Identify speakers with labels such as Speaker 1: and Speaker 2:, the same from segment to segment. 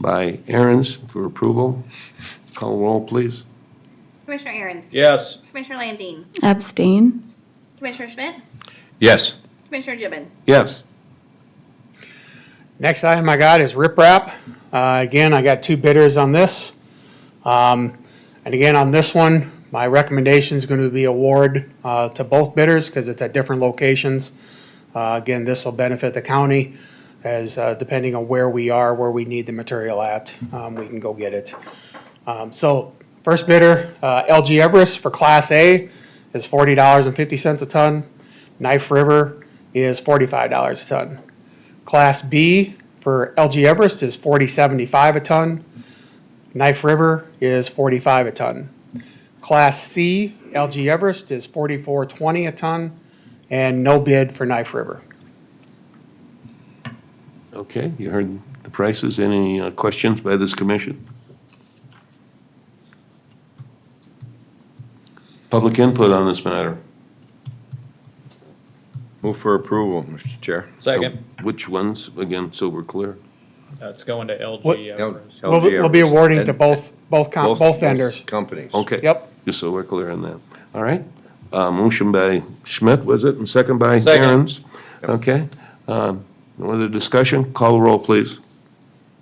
Speaker 1: by Aaron's for approval. Call roll, please.
Speaker 2: Commissioner Aaron's.
Speaker 3: Yes.
Speaker 2: Commissioner Landine.
Speaker 4: Abstain?
Speaker 2: Commissioner Schmidt.
Speaker 3: Yes.
Speaker 2: Commissioner Gibbon.
Speaker 1: Yes.
Speaker 5: Next item I got is riprap. Uh, Again, I got two bidders on this. Um, And again, on this one, my recommendation is going to be award uh, to both bidders because it's at different locations. Uh, Again, this will benefit the county as uh, depending on where we are, where we need the material at, um, we can go get it. Um, So first bidder, uh, LG Everest for Class A is forty dollars and fifty cents a ton. Knife River is forty-five dollars a ton. Class B for LG Everest is forty seventy-five a ton. Knife River is forty-five a ton. Class C LG Everest is forty-four twenty a ton, and no bid for Knife River.
Speaker 1: Okay, you heard the prices. Any uh, questions by this commission? Public input on this matter.
Speaker 6: Move for approval, Mr. Chair.
Speaker 3: Second.
Speaker 1: Which ones, again, so we're clear?
Speaker 3: That's Uh, going to
Speaker 5: What-
Speaker 3: LG. Everest.
Speaker 5: We'll, we'll be awarding to
Speaker 6: And-
Speaker 5: both, both, com- both vendors.
Speaker 6: Companies.
Speaker 1: Okay.
Speaker 5: Yep.
Speaker 1: Just so we're clear on that. All right. Uh, Motion by Schmidt, was it, and second by
Speaker 3: Second.
Speaker 1: Aaron's? Okay. Um, No other discussion? Call roll, please.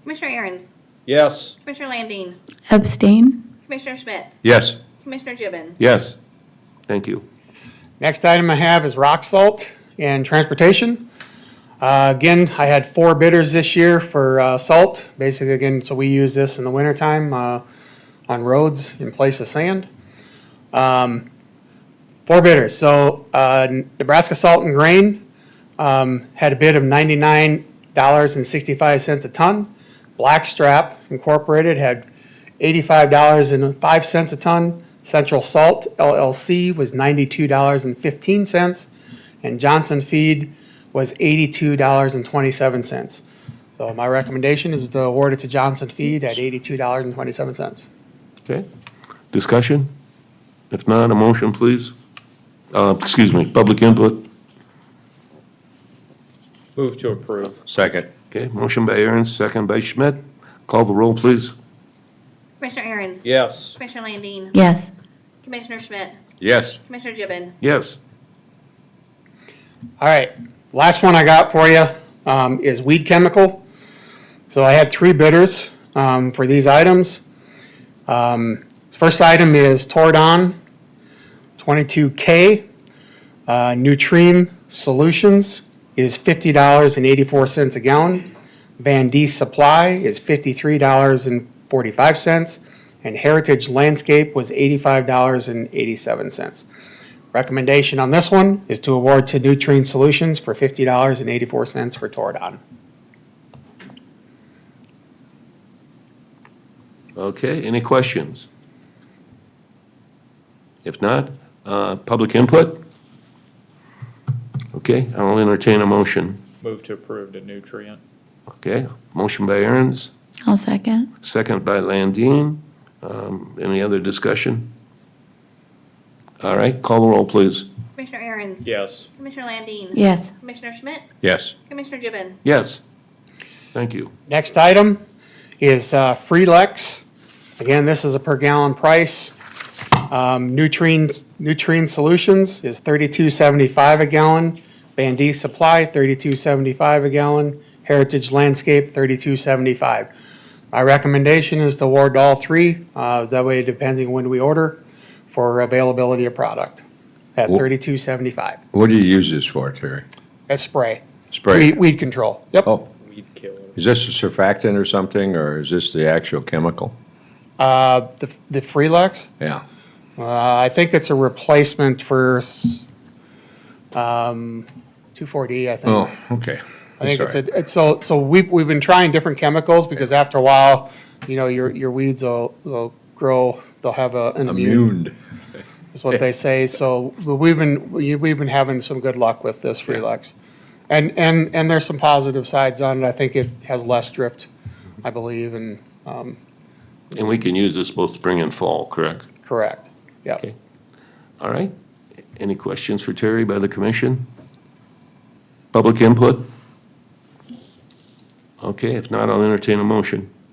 Speaker 2: Commissioner Aaron's.
Speaker 3: Yes.
Speaker 2: Commissioner Landine.
Speaker 4: Abstain?
Speaker 2: Commissioner Schmidt.
Speaker 6: Yes.
Speaker 2: Commissioner Gibbon.
Speaker 1: Yes. Thank you.
Speaker 5: Next item I have is rock salt and transportation. Uh, Again, I had four bidders this year for uh, salt, basically again, so we use this in the wintertime uh, on roads in place of sand. Um, Four bidders, so uh, Nebraska Salt and Grain um, had a bid of ninety-nine dollars and sixty-five cents a ton. Blackstrap Incorporated had eighty-five dollars and five cents a ton. Central Salt LLC was ninety-two dollars and fifteen cents, and Johnson Feed was eighty-two dollars and twenty-seven cents. So my recommendation is to award it to Johnson Feed at eighty-two dollars and twenty-seven cents.
Speaker 1: Okay. Discussion? If not, a motion, please. Uh, Excuse me, public input.
Speaker 3: Move to approve.
Speaker 6: Second.
Speaker 1: Okay, motion by Aaron's, second by Schmidt. Call the roll, please.
Speaker 2: Commissioner Aaron's.
Speaker 3: Yes.
Speaker 2: Commissioner Landine.
Speaker 4: Yes.
Speaker 2: Commissioner Schmidt.
Speaker 6: Yes.
Speaker 2: Commissioner Gibbon.
Speaker 1: Yes.
Speaker 5: All right, last one I got for you um, is weed chemical. So I had three bidders um, for these items. Um, First item is Toradon 22K. Uh, Nutrien Solutions is $50.84 a gallon. Van D Supply is $53.45. And Heritage Landscape was $85.87. Recommendation on this one is to award to Nutrien Solutions for fifty dollars and eighty-four cents for Toradon.
Speaker 1: Okay, any questions? If not, uh, public input? Okay, I'll entertain a motion.
Speaker 3: Move to approve the nutrient.
Speaker 1: Okay, motion by Aaron's,
Speaker 4: I'll second.
Speaker 1: second by Landine. Um, Any other discussion? All right, call the roll, please.
Speaker 2: Commissioner Aaron's.
Speaker 3: Yes.
Speaker 2: Commissioner Landine.
Speaker 4: Yes.
Speaker 2: Commissioner Schmidt.
Speaker 6: Yes.
Speaker 2: Commissioner Gibbon.
Speaker 1: Yes. Thank you.
Speaker 5: Next item is uh, Freelex. Again, this is a per gallon price. Um, Nutrien, Nutrien Solutions is thirty-two seventy-five a gallon. Van D Supply, thirty-two seventy-five a gallon. Heritage Landscape, thirty-two seventy-five. My recommendation is to award all three, uh, that way depending when we order, for availability of product at
Speaker 6: Wh-
Speaker 5: thirty-two seventy-five.
Speaker 6: What do you use this for, Terry?
Speaker 5: That's spray.
Speaker 6: Spray?
Speaker 5: Weed, weed control. Yep.
Speaker 6: Oh,
Speaker 3: Weed killer.
Speaker 6: is this a surfactant or something, or is this the actual chemical?
Speaker 5: Uh, the, the Freelux,
Speaker 6: Yeah.
Speaker 5: uh, I think it's a replacement for, s- um, 2,4-D, I think.
Speaker 6: Oh, okay.
Speaker 5: I think it's a, it's so, so we, we've been trying different chemicals because after a while, you know, your, your weeds will, will grow, they'll have a, an immune,
Speaker 6: Immune.
Speaker 5: is what they say. So but we've been, we- we've been having some good luck with this Freelux. And, and, and there's some positive sides on it. I think it has less drift, I believe, and, um,
Speaker 1: And we can use this both spring and fall, correct?
Speaker 5: correct. Yep.
Speaker 1: Okay. All right. Any questions for Terry by the commission? Public input? Okay, if not, I'll entertain a motion.